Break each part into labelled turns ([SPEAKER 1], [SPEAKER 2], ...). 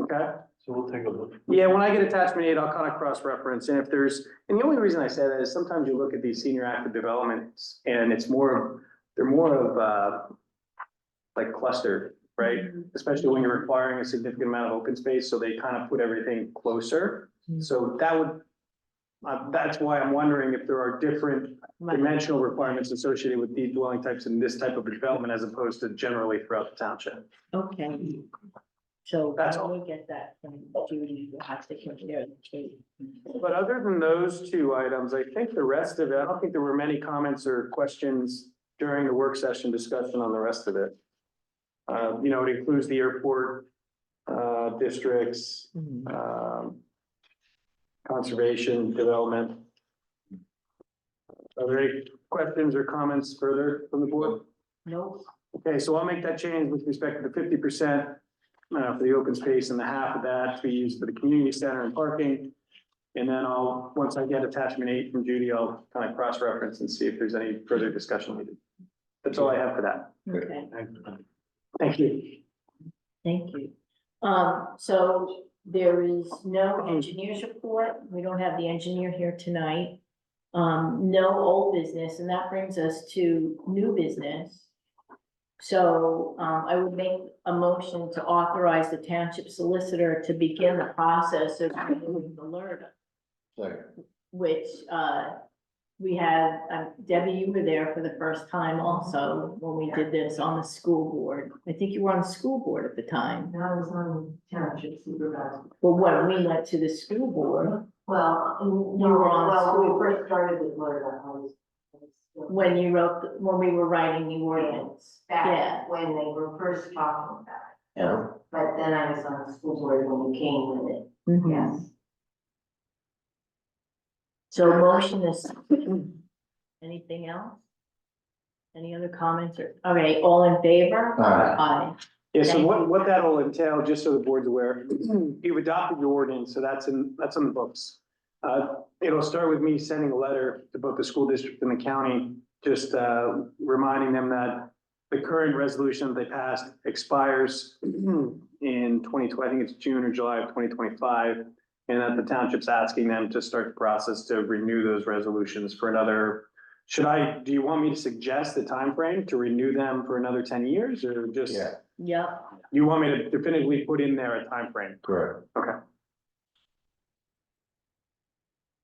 [SPEAKER 1] Okay.
[SPEAKER 2] So we'll take a look.
[SPEAKER 1] Yeah, when I get attachment eight, I'll kind of cross-reference, and if there's, and the only reason I say that is sometimes you look at these senior active developments, and it's more, of they're more of, uh, like clustered, right? Especially when you're requiring a significant amount of open space, so they kind of put everything closer, so that would, uh, that's why I'm wondering if there are different dimensional requirements associated with these dwelling types in this type of development as opposed to generally throughout the township.
[SPEAKER 3] Okay. So
[SPEAKER 1] That's
[SPEAKER 3] I
[SPEAKER 1] all.
[SPEAKER 3] will get that from Judy, who has to compare the case.
[SPEAKER 1] But other than those two items, I think the rest of it, I don't think there were many comments or questions during the work session discussion on the rest of it. Uh, you know, it includes the airport, uh, districts, um, conservation, development. Are there any questions or comments further from the board?
[SPEAKER 3] Nope,
[SPEAKER 1] Okay, so I'll make that change with respect to the fifty percent uh, for the open space and the half of that to be used for the community center and parking. And then I'll, once I get attachment eight from Judy, I'll kind of cross-reference and see if there's any further discussion needed. That's all I have for that.
[SPEAKER 3] okay,
[SPEAKER 1] Thank you.
[SPEAKER 3] thank you. Um, so there is no engineer's report, we don't have the engineer here tonight. Um, no old business, and that brings us to new business. So, um, I would make a motion to authorize the township solicitor to begin the process of renewing the LRTA. which, uh, we had, uh, Debbie, you were there for the first time also when we did this on the school board. I think you were on the school board at the time.
[SPEAKER 4] That was on township supervisor.
[SPEAKER 3] Well, when we went to the school board,
[SPEAKER 4] Well, no,
[SPEAKER 3] You were on
[SPEAKER 4] well,
[SPEAKER 3] school.
[SPEAKER 4] when we first started with Florida, I was. I was still-
[SPEAKER 3] when you wrote, the- when we were writing the ordinance. Yeah.
[SPEAKER 4] Back when they were first talking about it,
[SPEAKER 3] Yeah.
[SPEAKER 4] but then I was on the school board when we came with it,
[SPEAKER 3] Mhm.
[SPEAKER 4] yes.
[SPEAKER 3] So motion is, anything else? Any other comments or, okay, all in favor?
[SPEAKER 1] Uh,
[SPEAKER 5] Aye.
[SPEAKER 3] Aye.
[SPEAKER 1] Yeah, so what, what that'll entail, just so the board's aware, you've adopted your ordinance, so that's in, that's on the books. Uh, it'll start with me sending a letter to both the school district and the county, just, uh, reminding them that the current resolution they passed expires in twenty twenty, I think it's June or July of twenty twenty-five, and that the township's asking them to start the process to renew those resolutions for another should I, do you want me to suggest the time frame to renew them for another ten years or just?
[SPEAKER 5] Yeah.
[SPEAKER 3] Yep,
[SPEAKER 1] You want me to definitively put in there a time frame?
[SPEAKER 5] Correct.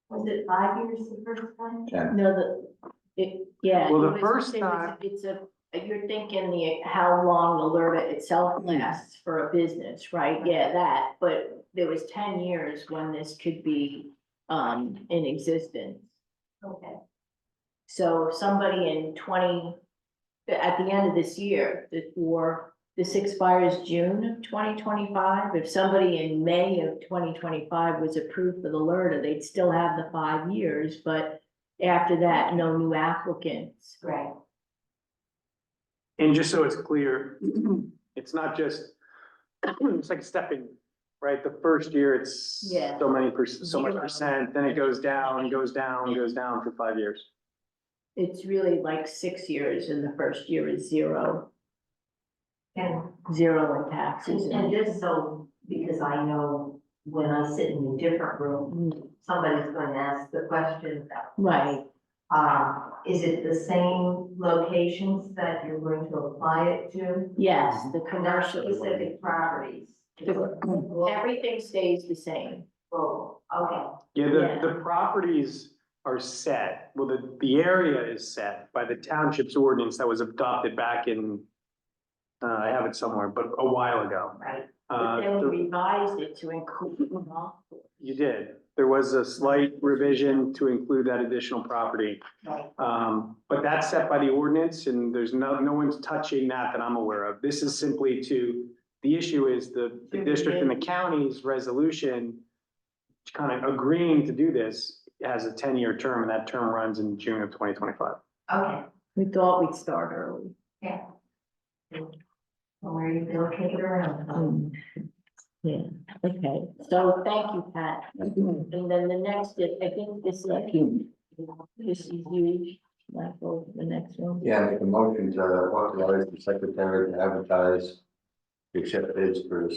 [SPEAKER 4] Was it five years the first time?
[SPEAKER 5] And
[SPEAKER 3] no, the, it, yeah.
[SPEAKER 1] Well, the
[SPEAKER 3] it was-
[SPEAKER 1] first
[SPEAKER 3] it was-
[SPEAKER 1] time-
[SPEAKER 3] It's a, you're thinking the, how long Alerta itself
[SPEAKER 1] Mm.
[SPEAKER 3] lasts for a business, right? Yeah, that, but there was ten years when this could be, um, in existence.
[SPEAKER 4] Okay,
[SPEAKER 3] So somebody in twenty, at the end of this year, the, or this expires June of twenty twenty-five. If somebody in May of twenty twenty-five was approved for the LRTA, they'd still have the five years, but after that, no new applicants.
[SPEAKER 4] great,
[SPEAKER 1] And just so it's clear, it's not just, it's like stepping, right? The first year, it's
[SPEAKER 3] Yeah.
[SPEAKER 1] so many, per- so much
[SPEAKER 3] Zero.
[SPEAKER 1] percent, then it goes down, goes down, goes down for five years.
[SPEAKER 3] It's really like six years and the first year is zero,
[SPEAKER 4] and,
[SPEAKER 3] zero in taxes.
[SPEAKER 4] and
[SPEAKER 3] and-
[SPEAKER 4] just so, because I know when I sit in a different room,
[SPEAKER 3] Mm,
[SPEAKER 4] somebody's going to ask the question about
[SPEAKER 3] Right,
[SPEAKER 4] Uh, is it the same locations that you're going to apply it to?
[SPEAKER 3] yes, the
[SPEAKER 4] Not
[SPEAKER 3] commercial,
[SPEAKER 4] specific properties?
[SPEAKER 3] mm. everything stays the same.
[SPEAKER 4] Oh, okay,
[SPEAKER 1] Yeah,
[SPEAKER 3] Yeah.
[SPEAKER 1] the, the properties are set, well, the, the area is set by the township's ordinance that was adopted back in, uh, I have it somewhere, but a while ago.
[SPEAKER 4] right,
[SPEAKER 1] Uh,
[SPEAKER 3] But then
[SPEAKER 1] the-
[SPEAKER 3] we revised it to include golf course.
[SPEAKER 1] You did. There was a slight revision to include that additional property.
[SPEAKER 4] right.
[SPEAKER 1] Um, but that's set by the ordinance and there's no, no one's touching that that I'm aware of. This is simply to, the issue is the, the district and the county's resolution kind of agreeing to do this has a ten-year term and that term runs in June of twenty twenty-five.
[SPEAKER 4] okay.
[SPEAKER 3] We thought we'd start early.
[SPEAKER 4] Where you located around?
[SPEAKER 3] Um, Yeah, okay, Mm-hmm. so thank you, Pat. And then the next, is- I think this is, this is you, Michael, the next one.
[SPEAKER 5] yeah, make a motion to authorize the secretary to advertise. Except bids for the